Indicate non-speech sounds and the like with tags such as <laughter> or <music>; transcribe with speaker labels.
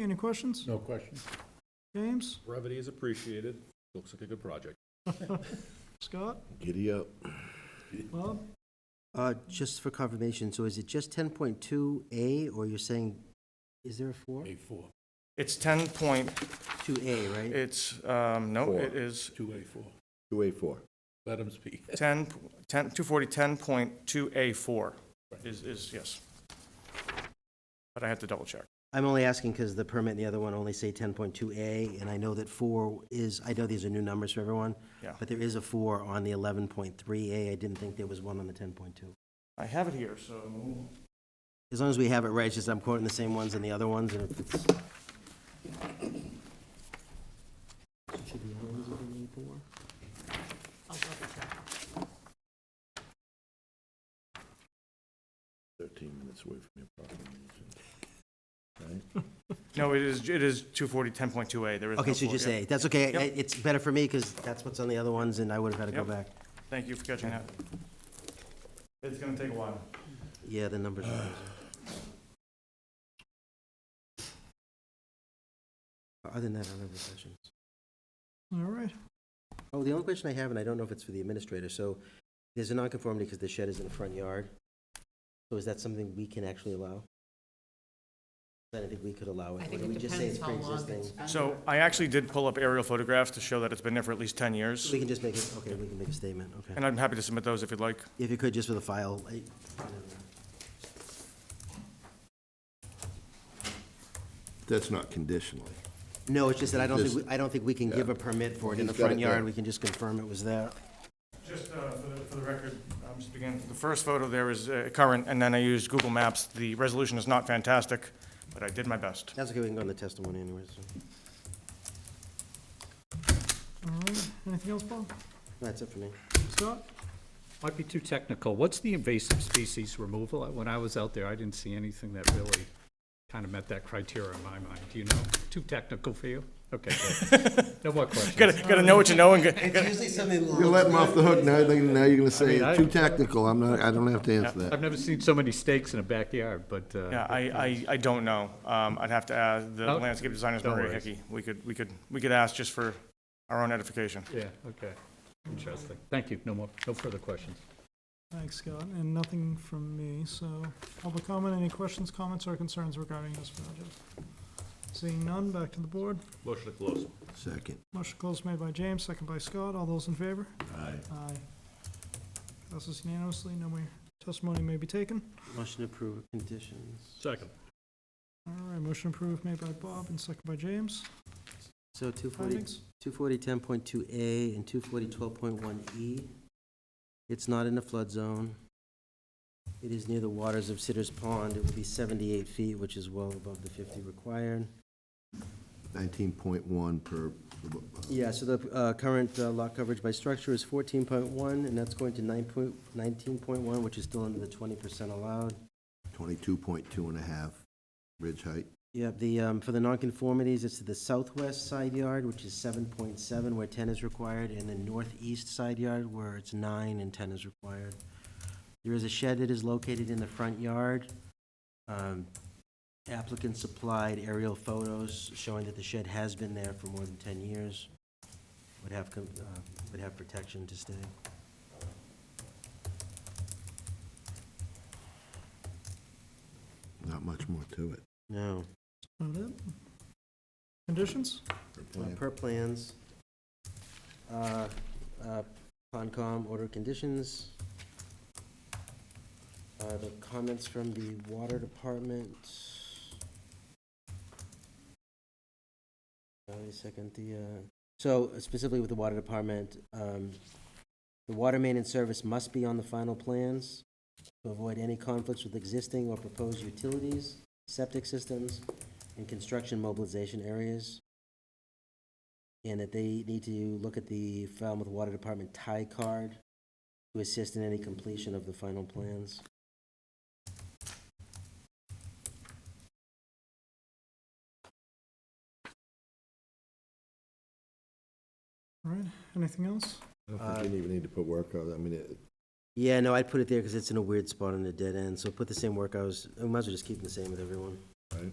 Speaker 1: Any questions?
Speaker 2: No questions.
Speaker 1: James,
Speaker 3: Brevity is appreciated. Looks like a good project.
Speaker 1: Scott,
Speaker 4: Giddy up.
Speaker 1: Bob?
Speaker 5: Uh, Just for confirmation, so is it just 10.2A, or you're saying, is there a 4?
Speaker 2: A four,
Speaker 6: It's 10 point,
Speaker 5: 2A, right?
Speaker 6: it's, um, no,
Speaker 4: Four.
Speaker 6: it is
Speaker 2: two A four.
Speaker 4: Two A four.
Speaker 2: Let them speak.
Speaker 6: 10, 10, 240, 10.2A4 is, is, yes. But I have to double check.
Speaker 5: I'm only asking because the permit and the other one only say 10.2A, and I know that 4 is, I know these are new numbers for everyone,
Speaker 6: Yeah.
Speaker 5: but there is a 4 on the 11.3A. I didn't think there was one on the 10.2.
Speaker 6: I have it here, so.
Speaker 5: As long as we have it right, it's just I'm quoting the same ones and the other ones, and if it's... Should be all these within the 4?
Speaker 4: Thirteen minutes away from your property.
Speaker 6: No, it is, it is 240, 10.2A. There is no
Speaker 5: Okay, so
Speaker 6: four,
Speaker 5: just
Speaker 6: yeah.
Speaker 5: A. That's okay. I-
Speaker 6: Yep.
Speaker 5: It's better for me because that's what's on the other ones, and I would have had to go
Speaker 6: Yep.
Speaker 5: back.
Speaker 6: Thank you for catching that. It's going to take a while.
Speaker 5: Yeah, the numbers are crazy. Other than that, I don't have any questions.
Speaker 1: All right,
Speaker 5: Oh, the only question I have, and I don't know if it's for the administrator, so there's a nonconformity because the shed is in the front yard. So is that something we can actually allow? I don't think we could allow it.
Speaker 7: I
Speaker 5: Or
Speaker 7: think
Speaker 5: do we
Speaker 7: it
Speaker 5: just say
Speaker 7: depends
Speaker 5: it's
Speaker 7: how long
Speaker 5: pre-existing?
Speaker 7: it's been.
Speaker 6: So I actually did pull up aerial photographs to show that it's been there for at least 10 years,
Speaker 5: We can just make it, okay, we can make a statement, okay.
Speaker 6: and I'm happy to submit those if you'd like.
Speaker 5: If you could, just for the file, I-
Speaker 4: That's not conditionally.
Speaker 5: No, it's just that I don't think,
Speaker 4: Just-
Speaker 5: we- I don't think we can give
Speaker 4: yeah.
Speaker 5: a permit for it in the
Speaker 4: He's got
Speaker 5: front
Speaker 4: it there.
Speaker 5: yard, we can just confirm it was there.
Speaker 6: Just uh, for the- for the record, I'm just beginning, the first photo there is uh, current, and then I used Google Maps. The resolution is not fantastic, but I did my best. <laughs>
Speaker 5: That's okay, we can go on the testimony anyways. so.
Speaker 1: all right. Anything else, Bob?
Speaker 5: That's it for me.
Speaker 1: Scott?
Speaker 8: Might be too technical. What's the invasive species removal? When I was out there, I didn't see anything that really kind of met that criteria in my mind, Do you know? Too technical for you? Okay, good. No
Speaker 6: <laughs>
Speaker 8: more
Speaker 6: Gotta,
Speaker 8: questions.
Speaker 6: gotta know what you know and get, <laughs>
Speaker 5: It's usually something.
Speaker 4: You let him off the hook, now, they- now you're gonna say,
Speaker 8: I mean, I-
Speaker 4: too technical, I'm not, I don't have to answer
Speaker 8: I've
Speaker 4: that.
Speaker 8: never seen so many steaks in a backyard, but, uh,
Speaker 6: yeah, I, I, I don't know. Um, I'd have to ask, the
Speaker 8: Oh,
Speaker 6: landscape designer's
Speaker 8: no
Speaker 6: Maria
Speaker 8: worries.
Speaker 6: Hickey. We could, we could, we could ask just for our own edification.
Speaker 8: yeah, okay. Interesting. Thank you. No more, no further questions.
Speaker 1: Thanks, Scott, and nothing from me, so public comment, any questions, comments, or concerns regarding this project? Seeing none, back to the board.
Speaker 3: Motion to close.
Speaker 4: Second.
Speaker 1: Motion closed made by James, second by Scott, all those in favor?
Speaker 4: Aye.
Speaker 1: Aye. Passes unanimously, no more testimony may be taken.
Speaker 5: Motion to approve of conditions.
Speaker 8: Second.
Speaker 1: All right, motion approved made by Bob and second by James.
Speaker 5: So 240,
Speaker 1: Findings?
Speaker 5: 240, 10.2A and 240, 12.1E. E. It's not in the flood zone. It is near the waters of Sitter's Pond. It would be 78 feet, which is well above the 50 required.
Speaker 4: Nineteen point one per.
Speaker 5: Yeah, so the uh, current uh, lot coverage by structure is fourteen point one, and that's going to nine point, nineteen point one, which is still under the twenty percent allowed.
Speaker 4: Twenty-two point two and a half, ridge height.
Speaker 5: Yep, the, um, for the nonconformities, it's to the southwest side yard, which is seven point seven, where ten is required, and the northeast side yard, where it's nine and ten is required. There is a shed that is located in the front yard. Um, Applicant supplied aerial photos showing that the shed has been there for more than ten years. Would have, com- uh, would have protection to stay.
Speaker 4: Not much more to it.
Speaker 5: No.
Speaker 1: Not it. Conditions?
Speaker 5: Uh, Per plans. Uh, uh, Concom order conditions. Uh, The comments from the water department. Uh, Wait a second, the, uh, so specifically with the water department, um, the water main and service must be on the final plans to avoid any conflicts with existing or proposed utilities, septic systems, and construction mobilization areas and that they need to look at the Falmouth Water Department tie card to assist in any completion of the final plans.
Speaker 1: All right, anything else?
Speaker 4: I don't think you even need to put work on it, I mean, it,
Speaker 5: Yeah, no, I'd put it there because it's in a weird spot on a dead end, so put the same work hours, I might as well just keep it the same with everyone.
Speaker 4: right?